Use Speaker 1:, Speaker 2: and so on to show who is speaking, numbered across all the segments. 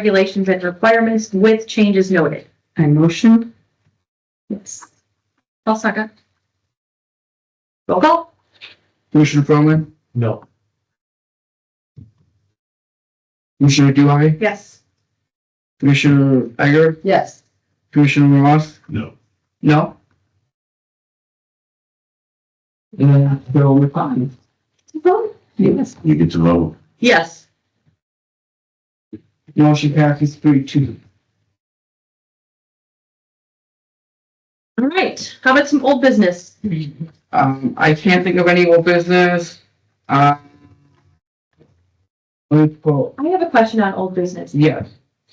Speaker 1: regulations and requirements with changes noted.
Speaker 2: I motion,
Speaker 1: Yes. I'll second. Roll call?
Speaker 3: Commissioner Froman,
Speaker 4: No.
Speaker 3: Commissioner Duhai,
Speaker 1: Yes.
Speaker 3: Commissioner Egger,
Speaker 2: yes.
Speaker 3: Commissioner Ross,
Speaker 4: No.
Speaker 3: no? And so we're fine.
Speaker 2: Yes.
Speaker 4: You get to vote.
Speaker 1: Yes.
Speaker 3: Motion passes three two.
Speaker 1: All right. How about some old business?
Speaker 3: Um, I can't think of any old business. Uh. Let's go,
Speaker 1: I have a question on old business.
Speaker 3: yes.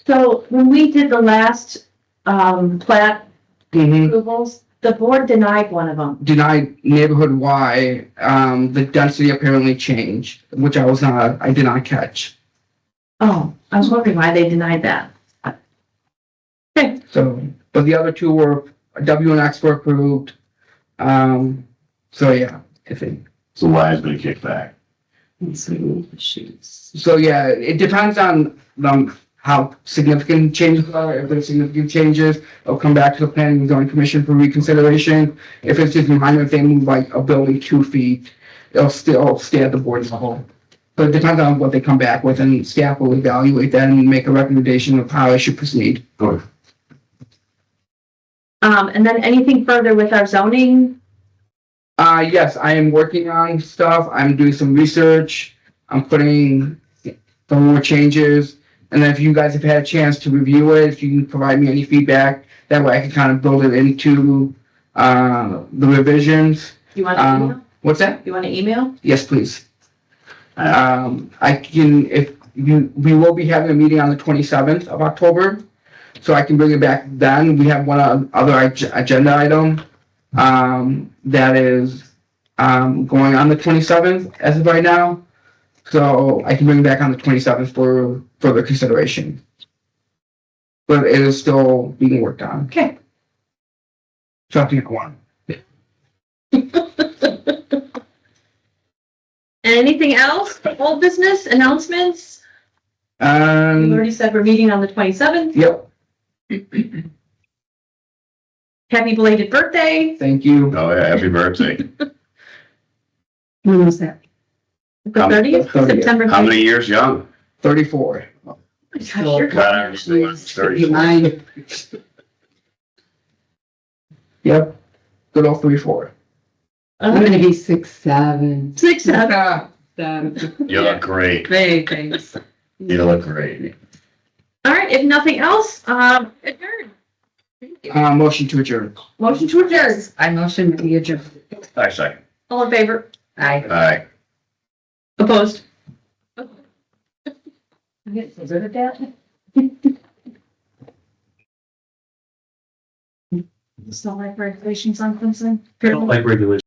Speaker 1: So when we did the last, um, plat
Speaker 3: Mhm.
Speaker 1: approvals, the board denied one of them.
Speaker 3: Denied neighborhood Y, um, the density apparently changed, which I was not, I did not catch.
Speaker 1: Oh, I was wondering why they denied that.
Speaker 3: So, but the other two were, W and X were approved. Um, so yeah, I think.
Speaker 4: So why has been kicked back?
Speaker 3: So yeah, it depends on um how significant changes are. If there's significant changes, it'll come back to the planning and zoning commission for reconsideration. If it's just minor, if they move like a building two feet, it'll still stay at the board as a whole. But it depends on what they come back with and staff will evaluate that and make a recommendation of how I should proceed.
Speaker 1: Um, and then anything further with our zoning?
Speaker 3: Uh, yes, I am working on stuff. I'm doing some research. I'm putting some more changes. And then if you guys have had a chance to review it, if you can provide me any feedback, that way I can kind of build it into, uh, the revisions.
Speaker 1: You want to
Speaker 3: Um,
Speaker 1: email?
Speaker 3: What's that?
Speaker 1: You want to email?
Speaker 3: Yes, please. Um, I can, if you, we will be having a meeting on the twenty-seventh of October. So I can bring it back then. We have one o- other ag- agenda item, um, that is, um, going on the twenty-seventh as of right now. So I can bring it back on the twenty-seventh for further consideration. But it is still being worked on.
Speaker 1: Okay.
Speaker 3: So I think one.
Speaker 1: Anything else? Old business announcements? You
Speaker 3: Um,
Speaker 1: already said we're meeting on the twenty-seventh.
Speaker 3: yep,
Speaker 1: Happy belated birthday.
Speaker 3: thank you.
Speaker 4: Oh, yeah, happy birthday.
Speaker 2: When was that?
Speaker 1: The
Speaker 4: Um,
Speaker 1: thirtieth,
Speaker 3: thirtieth.
Speaker 1: September.
Speaker 4: How many years young?
Speaker 3: Thirty-four.
Speaker 4: God, I'm still on
Speaker 2: You
Speaker 4: 34.
Speaker 2: mind?
Speaker 3: Yep. Good old three four.
Speaker 2: I'm gonna be six, seven.
Speaker 1: Six, uh, seven.
Speaker 2: Seven.
Speaker 4: You look great.
Speaker 2: Great, thanks.
Speaker 4: You look great.
Speaker 1: All right, if nothing else, um, adjourn.
Speaker 3: Uh, motion to adjourn.
Speaker 1: Motion to adjourn.
Speaker 2: I motion to adjourn.
Speaker 4: I second.
Speaker 1: All in favor?
Speaker 2: Aye.
Speaker 4: Aye.
Speaker 1: Opposed?
Speaker 2: I'm getting so good at that.
Speaker 1: Still like regulations on Clemson? Apparently.
Speaker 4: regulation.